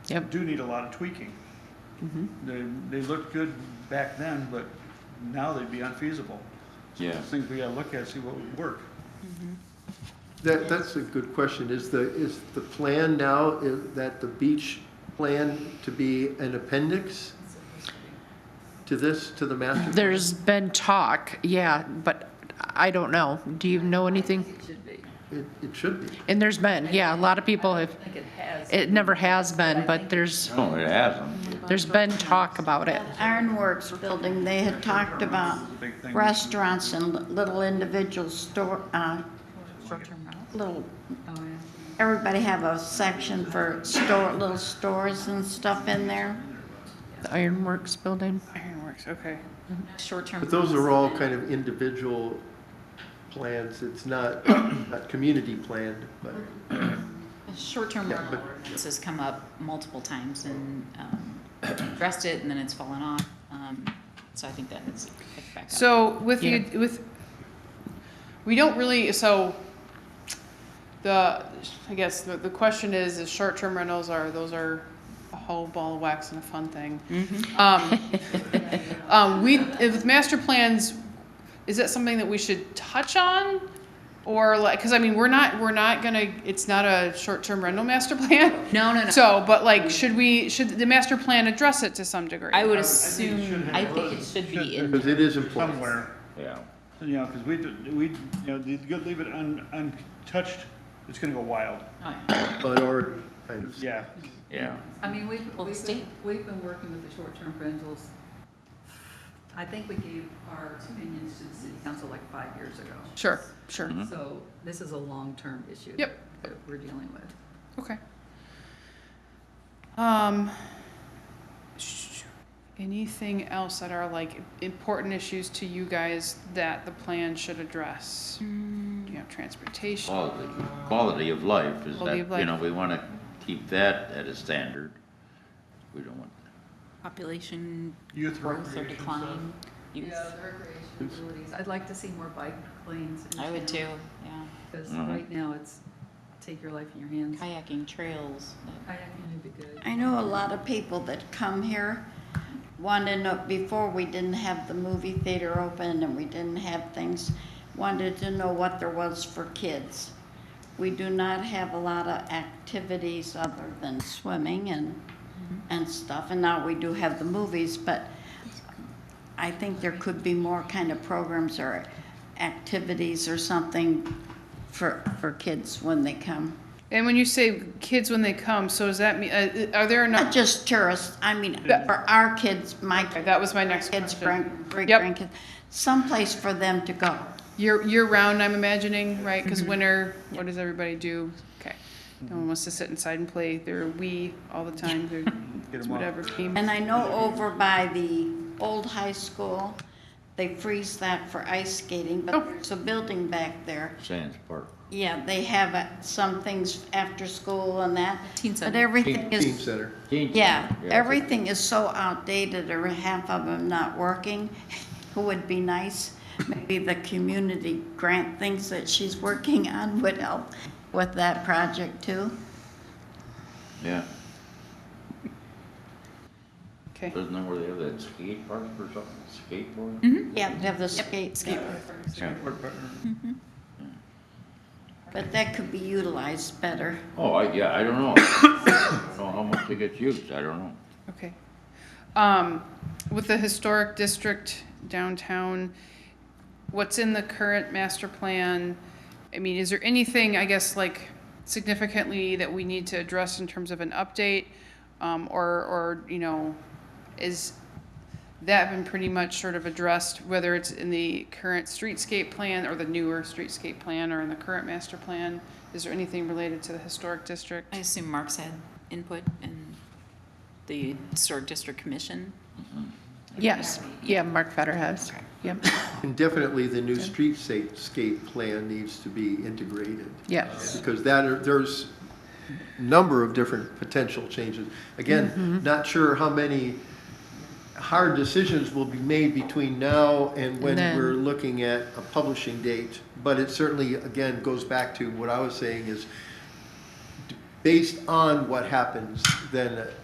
Yep. do need a lot of tweaking. They, they looked good back then, but now they'd be unfeasible. So Yeah. there's Things we gotta look at, see what would work. That, that's a good question. Is the, is the plan now, is that the beach plan to be an appendix to this, to the master? plan? There's been talk, yeah, but I don't know. Do you know anything? It should be. It, it should be. And there's been, yeah, a lot of people have, I think it has. it never has been, but there's, No, Oh, it hasn't. there's been talk about it. Ironworks building, they had talked about Big thing. restaurants and li- little individual store, uh, little, everybody have a section for store, little stores and stuff in there. The Ironworks building. Ironworks, okay. Short-term. But those are all kind of individual plans. It's not, not community planned, but Short-term Yeah, rental but- ordinance has come up multiple times and um, addressed it, and then it's fallen off. Um, So I think that is picked back up. So with the, Yeah. with, we don't really, so the, I guess the, the question is, is short-term rentals are, those are a whole ball of wax and a fun thing. Um, um, we, if with master plans, is that something that we should touch on? Or like, cause I mean, we're not, we're not gonna, it's not a short-term rental master plan. No, no, no. So, but like, should we, should the master plan address it to some degree? I think would it should assume, have I think it those. should be in. because it is important. Somewhere, Yeah. you know, cause we, we, you know, you could leave it un, untouched, it's gonna go wild, Oh, But or, kind of, yeah. Yeah. I mean, we've, Well, the we've state- been, we've been working with the short-term rentals. I think we gave our opinions to the city council like five years ago. Sure, sure. So this is a long-term issue. Yep. That we're dealing with. Okay. Um, sh- anything else that are like important issues to you guys that the plan should address? Mm. You know, transportation. Quality, quality of life is that, Quality of you know, life. we want to keep that at a standard. We don't want, Population Youth growth or recreation decline. Youth. Yeah, the recreation facilities. I'd like to see more bike lanes. in I would too, town, yeah. Because Mhm. right now it's take your life in your hands. Kayaking, trails. that- Kayaking would be good. I know a lot of people that come here wanted to know, before we didn't have the movie theater open and we didn't have things, wanted to know what there was for kids. We do not have a lot of activities other than swimming and, and stuff, and now we do have the movies, but I think there could be more kind of programs or activities or something for, for kids when they come. And when you say kids when they come, so does that mean, uh, are there Not enough? just tourists, I mean, Yeah. for our kids, my Okay, that was my next kids, question. grand- great Yep. grandkids, someplace for them to go. Year, year round, I'm imagining, right? Because Mm-hmm. winter, what does everybody do? Okay. No one wants to sit inside and play their Wii all the time, their Mm-hmm. Get 'em off. whatever game. And I know over by the old high school, they freeze that for ice skating, Oh. but there's a building back there. Sands Park. Yeah, they have uh, some things after school and that, Teen but center. everything team is, center. Teen yeah, center, everything is so outdated or half of them not working. It would be nice, maybe the community grant things that she's working on would help with that project too. Yeah. Okay. Doesn't know where they have that skate park or something, skateboard? Yeah, they have the skate, Yeah. Mm-hmm. but that could be utilized better. Oh, I, yeah, I don't know. I don't know how much it gets used, I don't know. Okay. Um, with the historic district downtown, what's in the current master plan? I mean, is there anything, I guess, like significantly that we need to address in terms of an update? Um, or, or, you know, is that been pretty much sort of addressed, whether it's in the current streetscape plan or the newer streetscape plan or in the current master plan? Is there anything related to the historic district? I assume Mark's had input and the historic district commission. Yes, yeah, Mark Fetter has, yep, And definitely the new streetscape plan needs to be integrated. yes. because that, are- there's number of different potential changes. Mm-hmm. Again, not sure how many hard decisions will be made between now and when And then- we're looking at a publishing date, but it certainly, again, goes back to what I was saying is, d- based on what happens, then